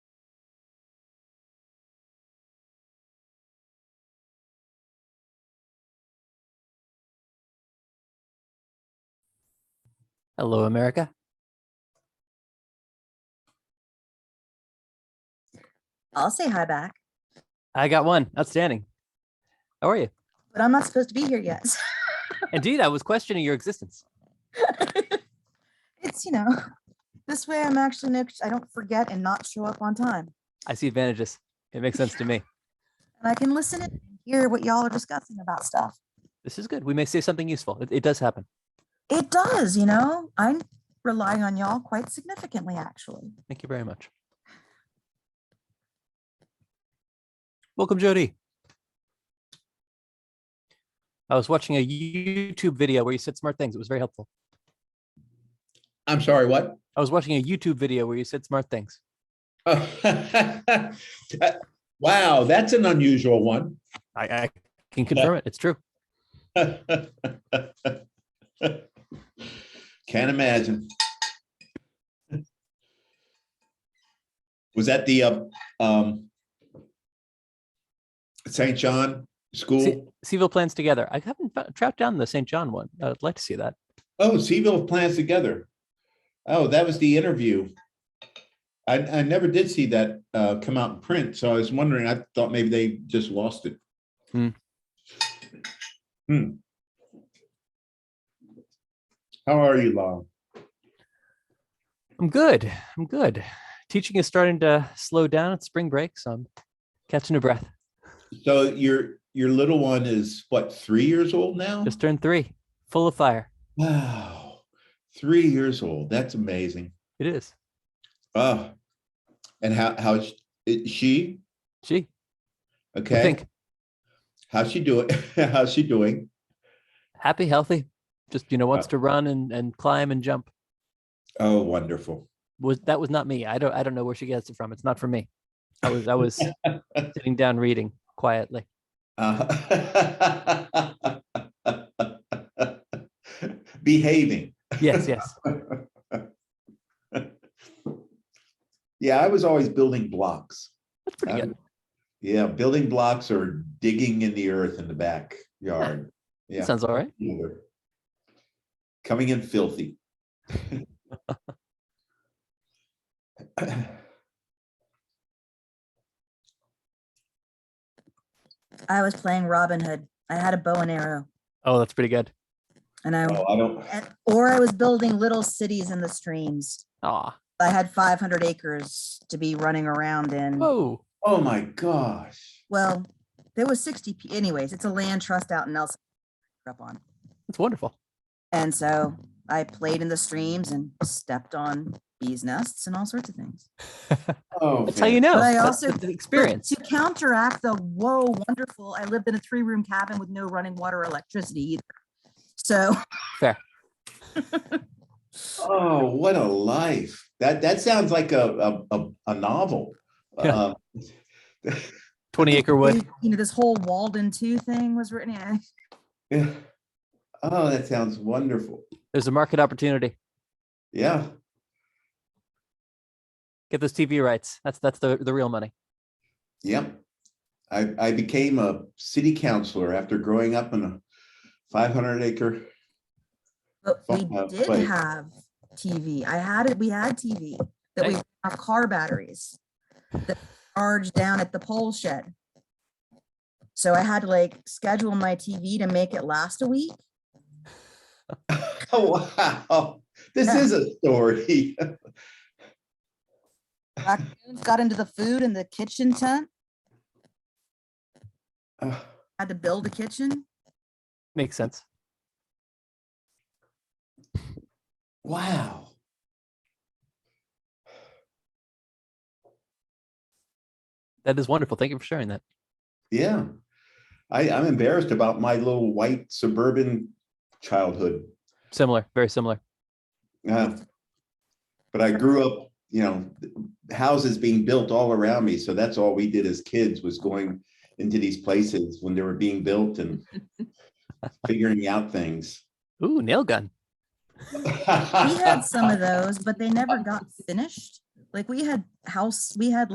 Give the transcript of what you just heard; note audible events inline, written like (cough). Hello, America. I'll say hi back, I got one. Outstanding. How are you? but I'm not supposed to be here yet. (laughs) so Indeed, I was questioning your existence. It's, you know, this way I'm actually, no- I don't forget and not show up on time. I see advantages. It makes sense to me. And I can listen and hear what y'all are discussing about stuff. This is good. We may say something useful. It, it does happen. It does, you know, I'm relying on y'all quite significantly, actually. Thank you very much. Welcome, Jody. I was watching a YouTube video where you said smart things. It was very helpful. I'm sorry, what? (laughs) I was watching a YouTube video where you said smart things. Oh. Uh, Wow, that's an unusual one. I, I can confirm it. It's true. Can't imagine. Was that the, uh, um, St. John Se- School? Seville plans together. I haven't fo- tracked down the St. John one. I'd like to see that. Oh, Seville plans together. Oh, that was the interview. I, I never did see that, uh, come out in print, so I was wondering, I thought maybe they just lost it. Hmm. Hmm. How are you, Lon? I'm good. I'm good. Teaching is starting to slow down. It's spring break, so I'm catching a breath. Uh-huh. So your, your little one is what, three years old now? Just turned three, full of fire. Wow, three years old, that's amazing. It is. Oh, and how, how, she, Gee, I okay? think How's she doing? (laughs) How's she doing? happy, healthy. Just you know, wants to run and and climb and jump. Oh, wonderful. Was that was not me. I don't I don't know where she gets it from. It's not from me. I was I (laughs) was sitting down reading quietly. Uh, (laughs) Behaving. Yes, yes. Yeah, I was always building blocks. That's pretty I'm- good. Yeah, building blocks or digging in the earth in the backyard. (laughs) Yeah. That sounds all right. either. Coming in filthy. (laughs) I was playing Robin Hood. I had a bow and arrow Oh, that's pretty good. and I, Oh, I don't, and- or I was building little cities in the streams. Ah, I had 500 acres to be running around in. whoa. oh my gosh. Well, there was 60, p- anyways, it's a land trust out in Nelson. grew Up on. That's wonderful. And so I played in the streams and stepped on bees nests and all sorts of things. Oh. That's how you know. But I That's- also- that's the But experience. To counteract the whoa, wonderful, I lived in a three room cabin with no running water or electricity either. So Oh, what a life. That, that sounds like a, a, a, a novel. Yeah. Um, Twenty acre wood. you know, this whole Walden two thing was written. yeah. Yeah. Oh, that sounds wonderful. There's a market opportunity. Yeah. Get those TV rights. That's that's the the real money. Yep. I, I became a city councilor after growing up in a 500 acre. (laughs) But we Fuck, uh, did wait. have TV. I had it, we had TV that we Nice. our car batteries that charged down at the pole shed. So I had to like schedule my TV to make it last a week. Oh, wow. This Yeah. is a story. (laughs) Raccoons got into the food in the kitchen tent, Oh, had to build a kitchen. Makes sense. Wow. That is wonderful. Thank you for sharing that. Yeah. I, I'm embarrassed about my little white suburban childhood. Similar, very similar. Uh, But I grew up, you know, houses being built all around me. So that's all we did as kids was going into these places when they were being built and figuring out things. Ooh, nail gun. We had some of those, but they never got finished. Like we had house, we had